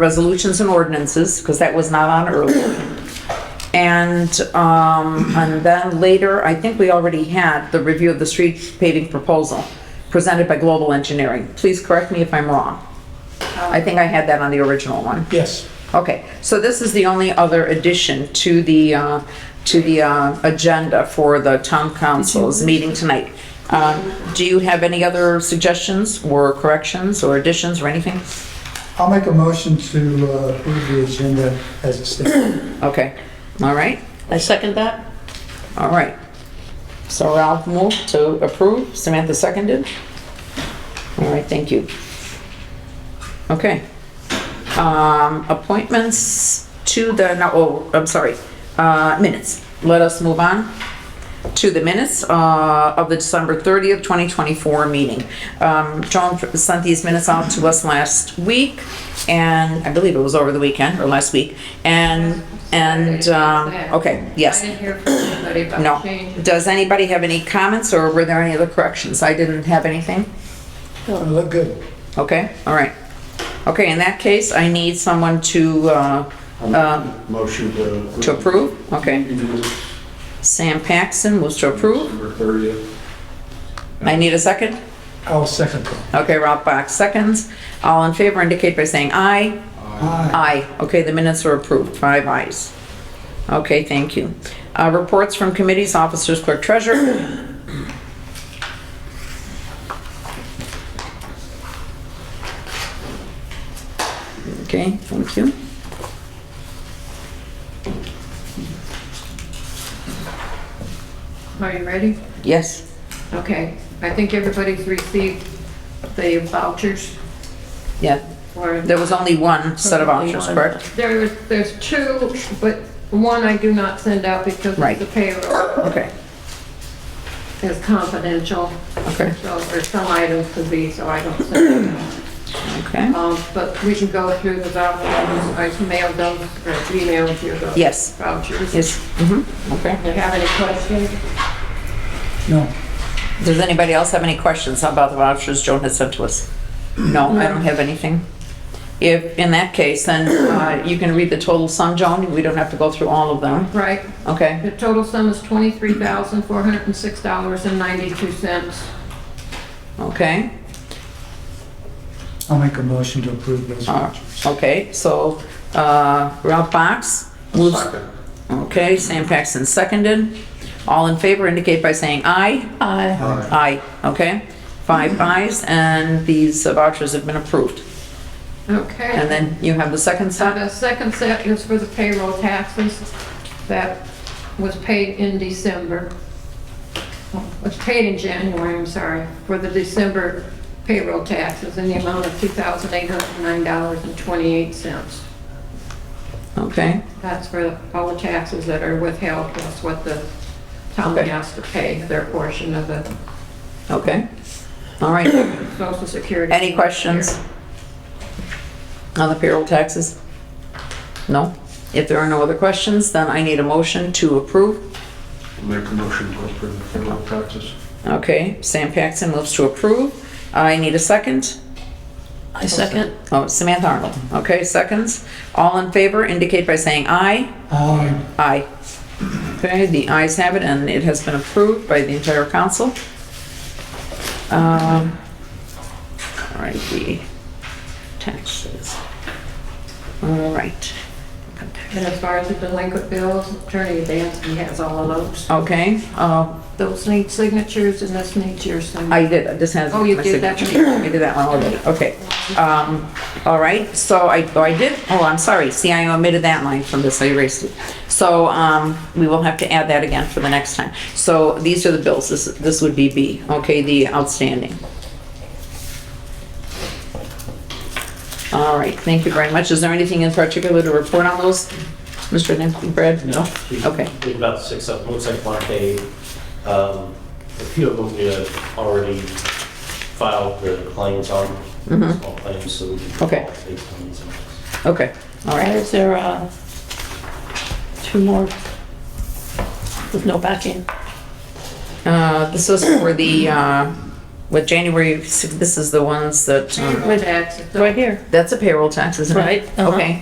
resolutions and ordinances, because that was not on earlier. And, um, and then later, I think we already had the review of the street paving proposal presented by Global Engineering. Please correct me if I'm wrong. I think I had that on the original one. Yes. Okay, so this is the only other addition to the, uh, to the uh, agenda for the town council's meeting tonight. Um, Do you have any other suggestions or corrections or additions or anything? I'll make a motion to uh, approve the agenda as it stands. Okay, all right, I second that. all right. So Ralph moved to approve, Samantha seconded. All right, thank you. Okay. Um, appointments to the, no, oh, I'm sorry, uh, minutes. Let us move on to the minutes, uh, of the December 30th, 2024 meeting. Um, Joan sent these minutes out to us last week and I believe it was over the weekend or last week. And, and, um, okay, yes. I didn't hear from anybody No. about changes. Does anybody have any comments or were there any other corrections? I didn't have anything. It'll look good. Okay, all right. Okay, in that case, I need someone to, uh, uh, Motion to approve. to approve. Okay. Sam Paxton moves to approve. December 30th. I need a second. I'll second that. Okay, Ralph Box seconds. All in favor indicate by saying aye. Aye. Aye. Okay, the minutes are approved. Five ayes. Okay, thank you. Uh, reports from committees, officers, clerk, treasurer. Okay, thank you. Are you ready? Yes. Okay, I think everybody's received the vouchers Yeah, for. there was only one set of options, correct? There was, there's two, but one I do not send out because Right. the payroll Okay, is confidential. Okay. So there's some items to be, so I don't send them out. okay. Um, but we can go through the vouchers, I mailed them, or emailed you the Yes. vouchers. Yes, mm-hmm, okay. Do you have any questions? No. Does anybody else have any questions about the vouchers Joan has sent to us? No, I don't have anything. If, in that case, then uh, you can read the total sum, Joan, we don't have to go through all of them, Right, okay? The total sum is twenty-three thousand, four hundred and six dollars and ninety-two cents. Okay, I'll make a motion to approve those. uh, okay, so uh, Ralph Box moves, Second. okay, Sam Paxton seconded. All in favor indicate by saying aye. I Aye, okay? Five ayes, and these vouchers have been approved. Okay. And then you have the second Uh, set? The second set is for the payroll taxes that was paid in December. Was paid in January, I'm sorry, for the December payroll taxes in the amount of two thousand, eight hundred and nine dollars and twenty-eight cents. Okay, That's for all the taxes that are withheld, plus what the town Okay. has to pay their portion of the okay. All right. social security. Any questions on the payroll taxes? No? If there are no other questions, then I need a motion to approve. Make a motion to approve the payroll taxes. Okay, Sam Paxton moves to approve. I need a second. I second. Oh, Samantha Arnold. Okay, seconds. All in favor indicate by saying aye. Aye. Aye. Okay, the ayes have it, and it has been approved by the entire council. Um, All right, the taxes. All right. And as far as the delinquent bills, Attorney Dansby has all of those. Okay, uh, Those need signatures and this needs your signature. I did, this has. Oh, you my did that signature. one. I did that one already, okay. Um, all right, so I, oh, I did, oh, I'm sorry, see, I omitted that line from this, I erased it. So, um, we will have to add that again for the next time. So these are the bills, this, this would be B, okay, the outstanding. All right, thank you very much. Is there anything in particular to report on those, Mr. Nancy, Brad? No. we- Okay. We have about six of them, looks like Mark A. Um, A few of them we have already filed their claims on, small claims, so we can. Mm-hmm. Okay. take them and- Okay, all Why right. is there, uh, two more with no backing? Uh, this was for the, uh, with January, this is the ones that, um, Payroll taxes. right here. that's a payroll tax, isn't it? Right, uh-huh. Okay,